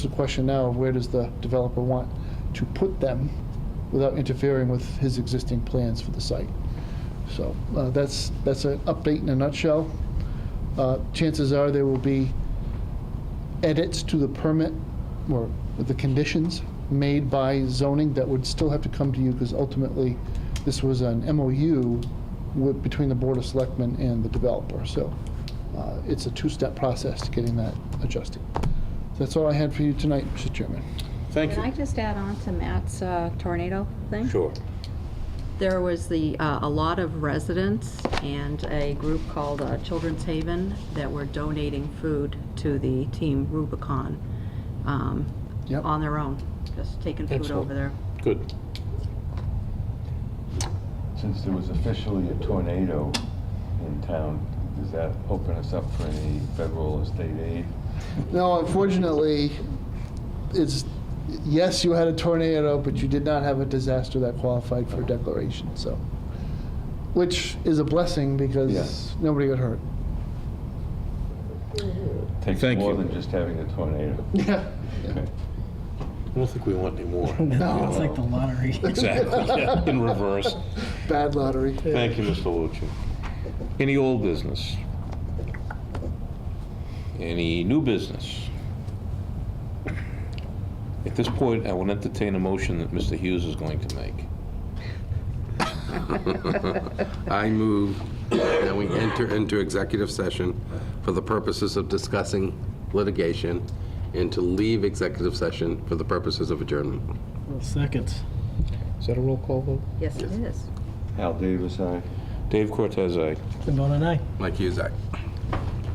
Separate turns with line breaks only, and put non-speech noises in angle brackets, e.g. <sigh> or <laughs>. The question now, of where does the developer want to put them without interfering with his existing plans for the site? So uh, that's, that's an update in a nutshell. Uh, Chances are there will be edits to the permit or the conditions made by zoning that would still have to come to you because ultimately this was an MOU with, between the Board of Selectmen and the developer. So uh, it's a two-step process to getting that adjusted. That's all I had for you tonight, Mr. Chairman.
Thank
Can I
you.
just add on to Matt's uh, tornado thing?
Sure.
There was the, uh, a lot of residents and a group called uh, Children's Haven that were donating food to the Team Rubicon um,
Yep.
on their own, just taking food
Excellent.
over there.
Good.
Since there was officially a tornado in town, does that open us up for any federal or state aid?
No, unfortunately, it's, yes, you had a tornado, but you did not have a disaster that qualified for declaration, so. Which is a blessing because
Yes.
nobody got hurt.
Takes
Thank
more
you.
than just having a tornado.
Yeah.
I don't think we want any
<laughs>
more.
No.
It's like the lottery.
<laughs> Exactly, yeah, in reverse.
Bad lottery.
Thank you, Mr. Lucci.
Any old business? Any new business? At this point, I will entertain a motion that Mr. Hughes is going to make.
I move that we enter into executive session for the purposes of discussing litigation and to leave executive session for the purposes of adjournment.
Seconds.
Is that a roll call vote?
Yes, it is.
Hal Davis, aye.
Dave Cortez, aye.
Bone and I.
Mike Hughes, aye.